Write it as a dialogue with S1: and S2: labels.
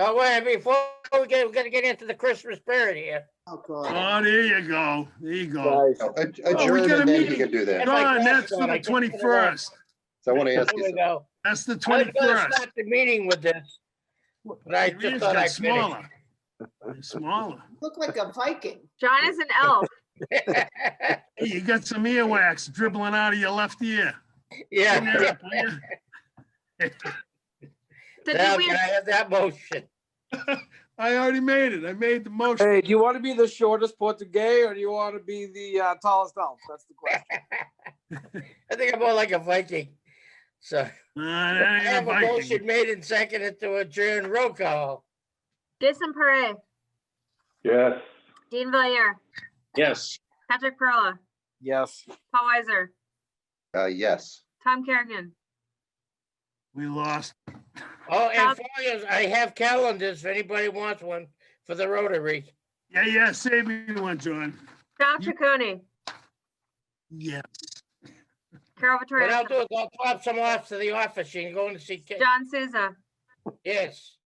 S1: But Oh, wait, before we get, we're gonna get into the Christmas spirit here.
S2: Oh, God.
S3: Oh, there you go. There you go.
S2: Guys,
S4: No, ad-
S3: we
S4: Adjourn
S3: got a
S4: and then
S3: meeting.
S4: you can do
S1: If
S4: that.
S1: I
S3: Don,
S1: can,
S3: that's
S1: Don,
S3: for
S1: I can
S3: the
S1: get it away.
S3: twenty-first.
S4: So I want to
S1: Here
S4: ask you
S1: we
S4: something.
S1: go.
S3: That's the
S1: I was gonna
S3: twenty-first.
S1: start the meeting with this, but I just
S3: Reed's
S1: thought
S3: got
S1: I'd finish.
S3: smaller. You're Smaller.
S2: Look like a Viking.
S5: John is an elf.
S3: Hey, You got some earwax dribbling out of your left ear. Clean that
S1: Yeah.
S3: up, will ya?
S5: So
S1: Now,
S5: did we,
S1: can I have that motion?
S3: I already made it. I made the motion.
S6: Hey, do you want to be the shortest Portuguese or do you want to be the uh, tallest elf? That's the question.
S1: I think I'm more like a Viking. So
S3: Nah,
S1: I
S3: that ain't
S1: have
S3: a
S1: a
S3: Viking.
S1: motion made and seconded to adjourn roll call.
S5: Jason Parre,
S7: Yes.
S5: Dean Valier,
S7: Yes.
S5: Patrick Perla,
S6: Yes.
S5: Paul Weiser,
S4: Uh, yes.
S5: Tom Kerrigan.
S3: We lost.
S1: Oh, and
S5: Cal-
S1: for you, I have calendars if anybody wants one for the Rotary.
S3: Yeah, yeah, save me one, John.
S5: Sal
S3: You-
S5: Chaconi,
S3: Yeah.
S5: Carol
S1: What
S5: Vittorioso,
S1: I'll do is I'll drop some off to the office. You can go and see, Ca-
S5: John Souza,
S1: yes.